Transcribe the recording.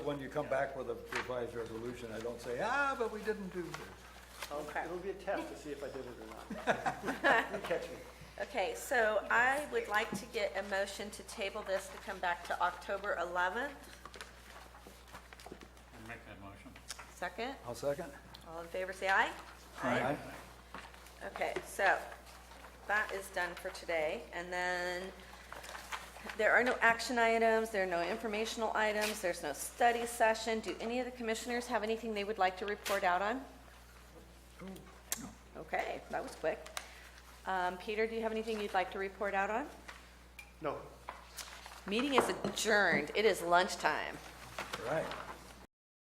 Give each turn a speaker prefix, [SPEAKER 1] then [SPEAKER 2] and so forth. [SPEAKER 1] when you come back with a revised resolution, I don't say, ah, but we didn't do this.
[SPEAKER 2] I'll-
[SPEAKER 3] Okay.
[SPEAKER 2] It'll be a test to see if I did it or not. You catch me.
[SPEAKER 3] Okay, so I would like to get a motion to table this to come back to October 11th.
[SPEAKER 4] Make that motion.
[SPEAKER 3] Second,
[SPEAKER 1] I'll second.
[SPEAKER 3] all in favor, say aye.
[SPEAKER 1] Aye.
[SPEAKER 3] Okay, so that is done for today. And then there are no action items, there are no informational items, there's no study session. Do any of the commissioners have anything they would like to report out on? Okay, that was quick. Um, Peter, do you have anything you'd like to report out on?
[SPEAKER 2] No,
[SPEAKER 3] Meeting is adjourned. It is lunchtime.
[SPEAKER 1] Right.